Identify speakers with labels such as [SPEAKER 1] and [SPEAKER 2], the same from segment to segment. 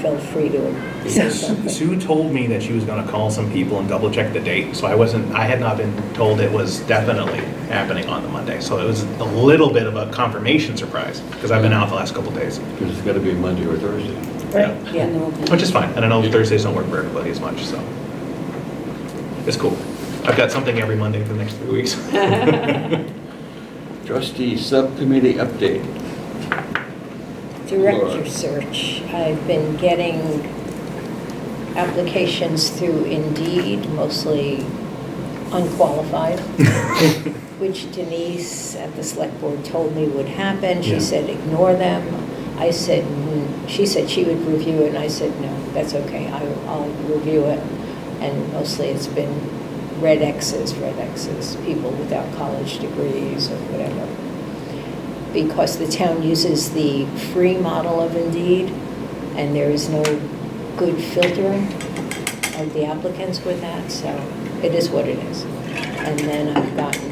[SPEAKER 1] felt free to say
[SPEAKER 2] Because
[SPEAKER 1] something.
[SPEAKER 2] Sue told me that she was gonna call some people and double check the date, so I wasn't, I had not been told it was definitely happening on the Monday. So it was a little bit of a confirmation surprise, because I've been out the last couple days.
[SPEAKER 3] Because it's got to be Monday or Thursday.
[SPEAKER 1] Right, yeah.
[SPEAKER 2] Which is fine, and I know Thursdays don't work for everybody as much, so. It's cool. I've got something every Monday for the next three weeks.
[SPEAKER 3] Trustee Subcommittee update.
[SPEAKER 1] Director
[SPEAKER 3] Laura.
[SPEAKER 1] search, I've been getting applications through Indeed, mostly unqualified, which Denise at the select board told me would happen.
[SPEAKER 2] Yeah.
[SPEAKER 1] She said, ignore them. I said, "Mm." she said she would review it, and I said, no, that's okay, I- I'll review it. And mostly it's been red X's, red X's, people without college degrees or whatever because the town uses the free model of Indeed, and there is no good filtering of the applicants with that, so it is what it is. And then I've gotten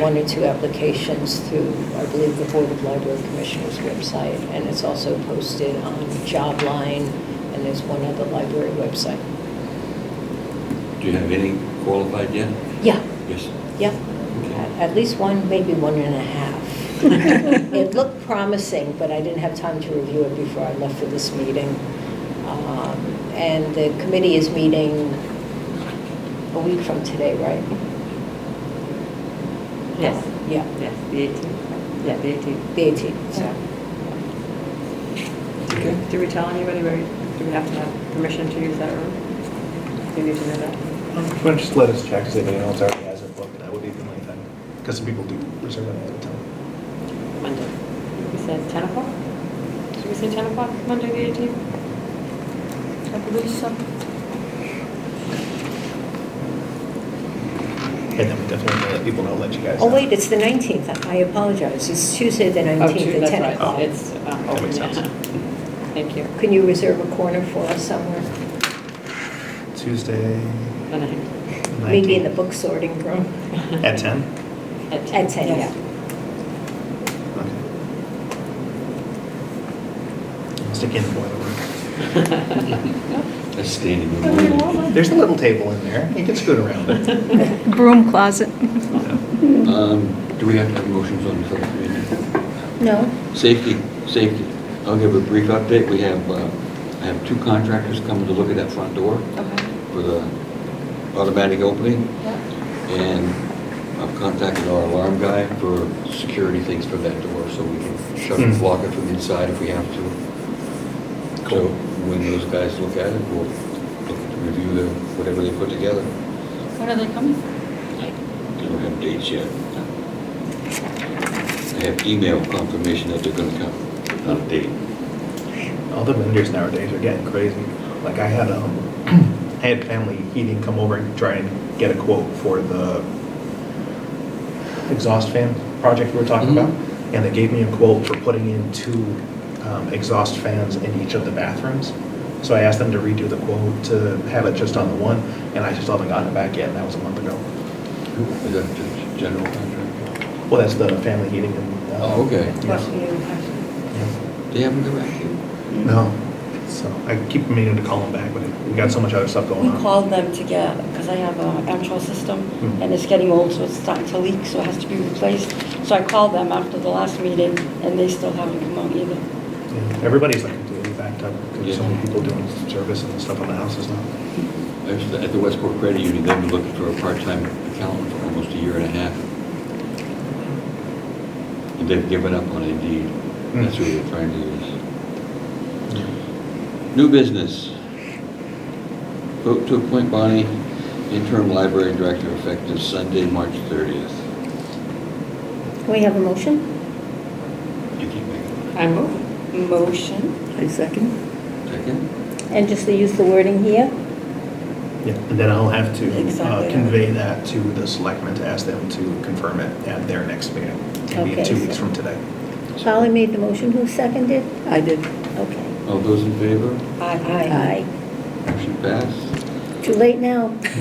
[SPEAKER 1] one or two applications through, I believe, the Board of Library Commissioners website, and it's also posted on Jobline, and there's one other library website.
[SPEAKER 3] Do you have any qualified yet?
[SPEAKER 1] Yeah,
[SPEAKER 3] Yes.
[SPEAKER 1] Yep, at at least one, maybe one and a half. It looked promising, but I didn't have time to review it before I left for this meeting. Um, And the committee is meeting a week from today, right?
[SPEAKER 4] Yes.
[SPEAKER 1] Yeah,
[SPEAKER 4] Yes, the 18th. Yeah, the 18th.
[SPEAKER 1] the 18th, so.
[SPEAKER 3] Okay.
[SPEAKER 4] Do we tell anybody where, do we have to have permission to use that room? Do you need to know that?
[SPEAKER 2] Why don't you just let us check, see if anyone else already has it booked, that would be the only thing. Because some people do reserve it ahead of time.
[SPEAKER 4] Monday. We said 10 o'clock? Should we say 10 o'clock, Monday, the 18th? I believe so.
[SPEAKER 2] And then we definitely let people know, let you guys know.
[SPEAKER 1] Oh, wait, it's the 19th, I apologize, it's Tuesday,
[SPEAKER 4] Oh,
[SPEAKER 1] the 19th, at 10 o'clock.
[SPEAKER 4] It's, uh,
[SPEAKER 2] That makes
[SPEAKER 4] open,
[SPEAKER 2] sense.
[SPEAKER 4] yeah. Thank you.
[SPEAKER 1] Can you reserve a corner for us somewhere?
[SPEAKER 2] Tuesday,
[SPEAKER 4] The ninth.
[SPEAKER 1] Maybe in the
[SPEAKER 2] 19th.
[SPEAKER 1] book sorting room?
[SPEAKER 2] At 10?
[SPEAKER 1] At 10,
[SPEAKER 4] yes.
[SPEAKER 1] yeah.
[SPEAKER 2] Okay. I'll Stick in the boiler room.
[SPEAKER 3] That's standing room.
[SPEAKER 2] There's a little table in there. You can scoot around it.
[SPEAKER 5] Broom closet.
[SPEAKER 3] Um, Do we have to have motions on the subcommittee?
[SPEAKER 1] No?
[SPEAKER 3] Safety, safety. I'll give a brief update. We have, uh, I have two contractors coming to look at that front door
[SPEAKER 4] Okay.
[SPEAKER 3] for the automatic opening.
[SPEAKER 4] Yeah.
[SPEAKER 3] And I've contacted our alarm guy for security things for that door, so we can shut
[SPEAKER 2] Hmm.
[SPEAKER 3] and lock it from inside if we have to. So
[SPEAKER 2] Cool.
[SPEAKER 3] when those guys look at it, we'll look to review the, whatever they put together.
[SPEAKER 4] When are they coming?
[SPEAKER 3] They don't have dates yet. I have email confirmation that they're gonna come, not a date.
[SPEAKER 2] All the vendors nowadays are getting crazy. Like I had, um, I had family heating come over and try and get a quote for the exhaust fan project we were talking
[SPEAKER 3] Mm-hmm.
[SPEAKER 2] about. And they gave me a quote for putting in two, um, exhaust fans in each of the bathrooms. So I asked them to redo the quote to have it just on the one, and I just haven't gotten it back yet, and that was a month ago.
[SPEAKER 3] Who- Is that the general contractor?
[SPEAKER 2] Well, that's the family heating and. uh,
[SPEAKER 3] Oh, okay.
[SPEAKER 2] yeah, yeah.
[SPEAKER 3] They haven't come back yet.
[SPEAKER 2] No, so I keep meaning to call them back, but we got so much other stuff going
[SPEAKER 6] We
[SPEAKER 2] on.
[SPEAKER 6] called them to get, because I have a Amtrol system,
[SPEAKER 2] Hmm.
[SPEAKER 6] and it's getting old, so it's starting to leak, so it has to be replaced. So I called them after the last meeting, and they still haven't come out either.
[SPEAKER 2] Yeah, Everybody's like completely backed up, because so many
[SPEAKER 3] Yeah.
[SPEAKER 2] people doing service and stuff on the houses now.
[SPEAKER 3] I was at the Westport Credit Union, they've been looking for a part-time accountant for almost a year and a half. And they've given up on Indeed. That's who they're trying to use. New business. Vote to appoint Bonnie interim library director effective Sunday, March 30th.
[SPEAKER 5] We have a motion?
[SPEAKER 3] You can make it.
[SPEAKER 4] I move.
[SPEAKER 6] Motion.
[SPEAKER 5] I second.
[SPEAKER 3] Second?
[SPEAKER 5] And just to use the wording here?
[SPEAKER 2] Yeah, and then I'll have to uh,
[SPEAKER 6] Exactly.
[SPEAKER 2] convey that to the selectmen to ask them to confirm it at their next meeting. It'll be
[SPEAKER 5] Okay,
[SPEAKER 2] two
[SPEAKER 5] so-
[SPEAKER 2] weeks from today.
[SPEAKER 5] Polly made the motion, who seconded?
[SPEAKER 7] I did.
[SPEAKER 5] Okay.
[SPEAKER 3] All those in favor?
[SPEAKER 6] Aye.
[SPEAKER 5] Aye.
[SPEAKER 3] Motion passed.
[SPEAKER 5] Too late now.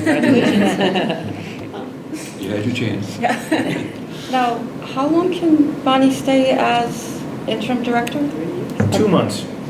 [SPEAKER 3] You had your chance.
[SPEAKER 6] Now, how long can Bonnie stay as interim director?
[SPEAKER 4] Three years.
[SPEAKER 2] Two months.